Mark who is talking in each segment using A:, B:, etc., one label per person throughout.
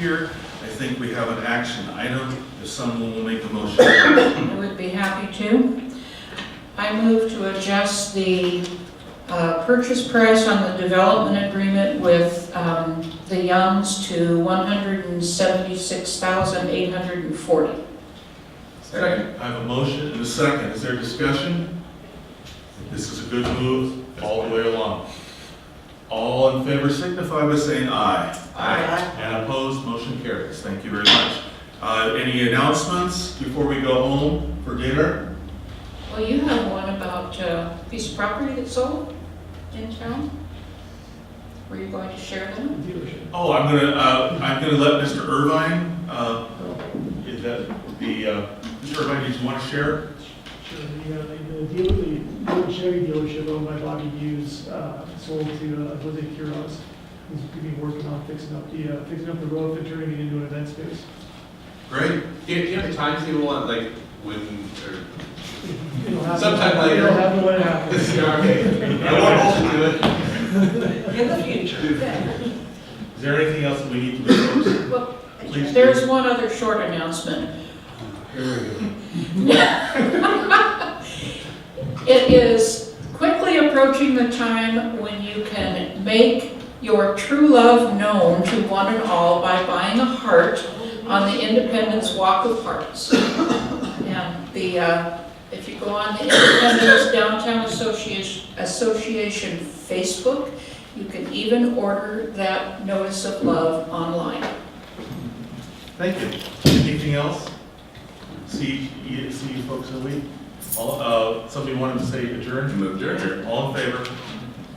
A: Here, I think we have an action item, if someone will make a motion.
B: I would be happy to. I move to adjust the uh, purchase price on the development agreement with um, the Youngs to $176,840.
A: Second. I have a motion and a second, is there discussion? This is a good move, all the way along. All in favor signify by saying aye.
B: Aye.
A: And opposed, motion carries, thank you very much. Uh, any announcements before we go home for dinner?
B: Well, you have one about uh, a piece of property that sold in town? Were you going to share them?
A: Oh, I'm gonna, uh, I'm gonna let Mr. Irvine, uh, is that the, uh, Mr. Irvine, did you wanna share?
C: Sure, the, uh, the deal, the old Chevy dealership owned by Bobby Hughes, uh, sold to uh, Jose Quiroz. He's gonna be working on fixing up the, uh, fixing up the roof and turning it into an event space.
A: Great,
D: Do you, do you have a timetable on like when or?
C: It'll happen-
D: Sometime later.
C: It'll happen when it happens.
D: okay. I want to do it.
E: In the future.
A: Is there anything else that we need to do?
B: Well,
A: Please
B: There's one other short announcement. It is quickly approaching the time when you can make your true love known to one and all by buying a heart on the Independence Walk of Hearts. And the, uh, if you go on the Independence Downtown Association Association Facebook, you can even order that notice of love online.
A: Thank you. Anything else? See, you, see you folks in a week? All, uh, somebody wanted to say adjourn?
D: Move adjourn.
A: All in favor?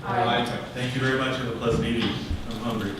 D: Aye.
A: Thank you very much, have a pleasant evening. I'm hungry.